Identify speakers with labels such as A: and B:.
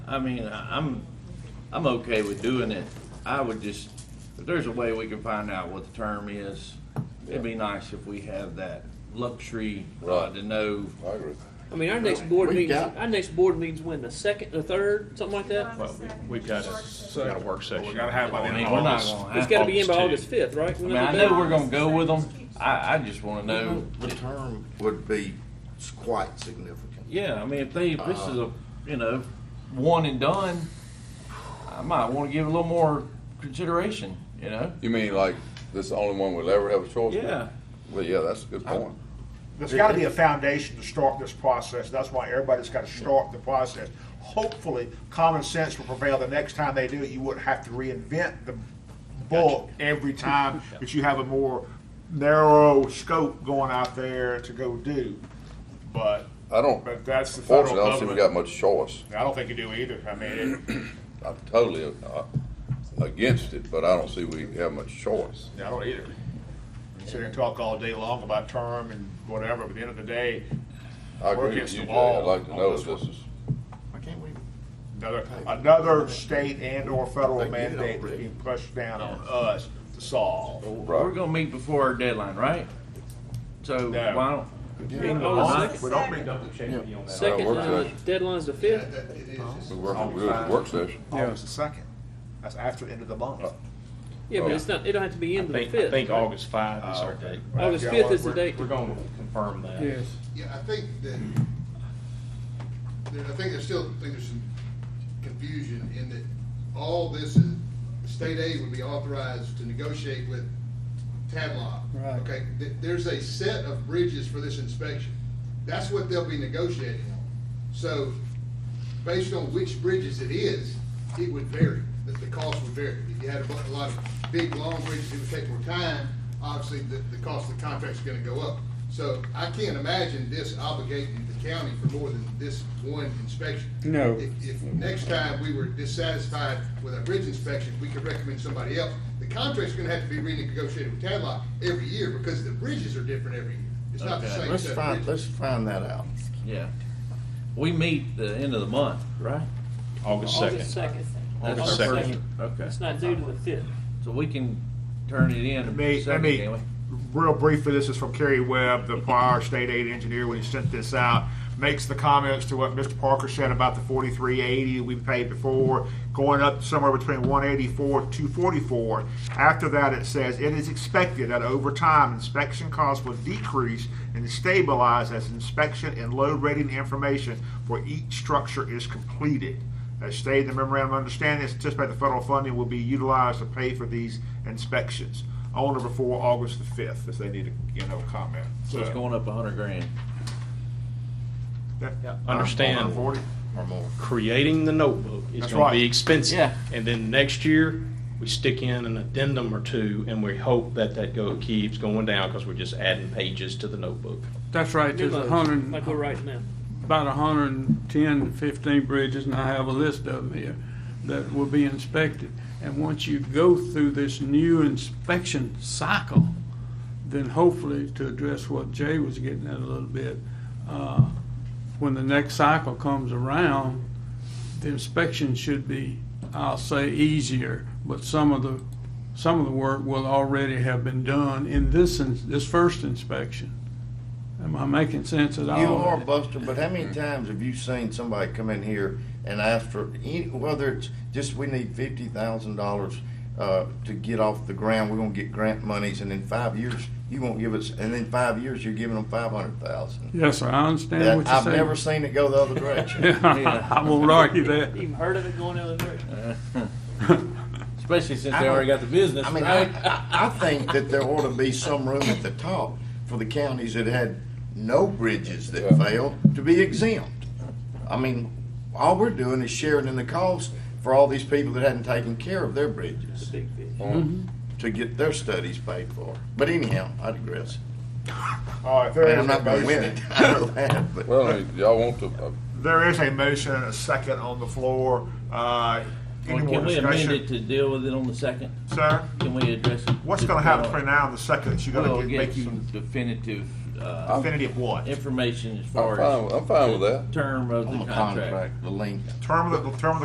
A: I mean, I- I'm, I'm okay with doing it. I would just, if there's a way we can find out what the term is, it'd be nice if we have that luxury uh,
B: Right.
A: to know.
B: I agree.
C: I mean, our next board
D: We
C: meeting,
D: got-
C: our next board meeting's when, the second, the third, something like that?
E: Well, we- we've got a, we got a work session.
F: We gotta have by the
A: I
F: end
A: mean,
F: of
A: we're not
F: August.
A: gonna
C: It's
A: have,
C: gotta be in by August
F: August
C: fifth, right?
A: I mean, I know we're gonna go with them. I, I just wanna
C: Mm-hmm.
A: know,
D: The term would be s- quite significant.
A: yeah, I mean, if they, if this is
C: Uh-huh.
A: a, you know, one and done, I might wanna give a little more consideration, you know?
B: You mean like this is the only one we'll ever have a choice? with?
A: Yeah.
B: Well, yeah, that's a good point.
F: There's gotta be a foundation to start this process. That's why everybody's gotta start the process. Hopefully, common sense will prevail the next time they do it. You wouldn't have to reinvent the book every time, but you have a more narrow scope going out there to go do. But,
B: I don't,
F: but that's the federal
B: fortunately, I don't think we got
F: government.
B: much choice.
F: I don't think you do either. I mean, it-
B: I'm totally uh, against it, but I don't see we have much choice.
F: I don't either. You Sit here and talk all day long about term and whatever, but at the end of the day,
B: I
F: We're
B: agree with
F: against
B: you,
F: the
B: Jay.
F: wall
B: I'd like to
F: on
B: know
F: this
B: if this
F: one.
B: is,
D: Why can't we?
F: Another, another state and or federal
D: They did
F: mandate that's
D: already.
F: being pushed down on us to solve.
A: We're
B: right,
A: gonna meet before our deadline, right? So
F: No.
A: why don't,
F: We don't mean to-
C: Second,
B: Work
C: uh,
B: session.
C: deadline's the fifth?
B: we work, we do a work session.
F: August the second. That's after the end of the month.
C: Yeah, but it's not, it don't have to be
G: I
C: in the
G: think, I
C: fifth.
G: think August five is
F: Oh,
G: our date.
C: August
F: Yeah,
C: fifth is the
F: we're-
C: date.
G: We're gonna confirm that.
H: Yeah, I think that, that I think there's still, I think there's some confusion in that all this is, state aid would be authorized to negotiate with Tadlock. Right. Okay, th- there's a set of bridges for this inspection. That's what they'll be negotiating on. So based on which bridges it is, it would vary, that the cost would vary. If you had a bu- a lot of big, long bridges, it would take more time, obviously, the, the cost of the contract's gonna go up. So I can't imagine this obligating the county for more than this one inspection. No. If, if next time we were dissatisfied with our bridge inspection, we could recommend somebody else. The contract's gonna have to be renegotiated with Tadlock every year, because the bridges are different every year. It's not the
A: Okay,
H: same
D: Let's
H: set of
D: find,
H: bridges.
D: let's find that out.
A: yeah. We meet the end of the month, right?
G: August
C: August
G: second.
C: second.
A: That's
C: August
A: our
C: second.
A: first- Okay,
C: It's not due to the fifth.
A: so we can turn it in.
F: Let me, let
A: second,
F: me,
A: can't we?
F: real briefly, this is from Kerry Webb, the prior state aid engineer, when he sent this out, makes the comments to what Mr. Parker said about the forty-three eighty we paid before, going up somewhere between one eighty-four, two forty-four. After that, it says, it is expected that over time, inspection costs will decrease and stabilize as inspection and load rating information for each structure is completed. As stated in the memorandum of understanding, it's anticipated the federal funding will be utilized to pay for these inspections on or before August the fifth, if they need to, you know, comment.
A: So it's going up a hundred grand.
F: Yeah.
G: Understand.
F: Forty.
G: Or more. Creating the notebook is
F: That's
G: gonna
F: right.
G: be expensive.
A: Yeah.
G: And then next year, we stick in an addendum or two and we hope that that go, keeps going down because we're just adding pages to the notebook.
I: That's right, there's a hundred,
C: Like we're right now.
I: about a hundred and ten, fifteen bridges, and I have a list of them here, that will be inspected. And once you go through this new inspection cycle, then hopefully, to address what Jay was getting at a little bit, uh, when the next cycle comes around, the inspection should be, I'll say, easier, but some of the, some of the work will already have been done in this, ins- this first inspection. Am I making sense at all?
D: You are Buster, but how many times have you seen somebody come in here and ask for, any- whether it's just we need fifty thousand dollars uh, to get off the ground, we're gonna get grant monies, and in five years, you won't give us, and in five years, you're giving them five hundred thousand.
I: Yes, sir, I understand what you're
D: I've
I: saying.
D: never seen it go the other direction.
I: I won't argue that.
C: Even heard of it going the other direction.
A: Especially since
D: I
A: they
D: don't-
A: already got the business,
D: I mean, I,
A: right?
D: I I think that there ought to be some room at the top for the counties that had no bridges that failed to be exempt. I mean, all we're doing is sharing in the cost for all these people that hadn't taken care of their bridges
C: Big fish.
D: to get their studies paid for. But anyhow, I digress.
F: All right, there
D: And
F: is
D: I'm
F: a
D: not gonna win
F: motion.
D: it, I know that, but.
B: Well, I mean, y'all want to, uh,
F: There is a motion and a second on the floor. Uh,
A: Well,
F: Any more
A: Can we amend it
F: discussion?
A: to deal with it on the second?
F: Sir,
A: Can we address it?
F: what's gonna happen between now and the second? Is you
A: We'll
F: gonna get-
A: get
F: make you
A: some definitive, uh,
F: definitive what?
A: information as
B: I'm
A: far
B: fine,
A: as
B: I'm fine with that.
A: term of
D: On
A: the
D: the
A: contract.
D: contract, the length.
F: Term of the, term of the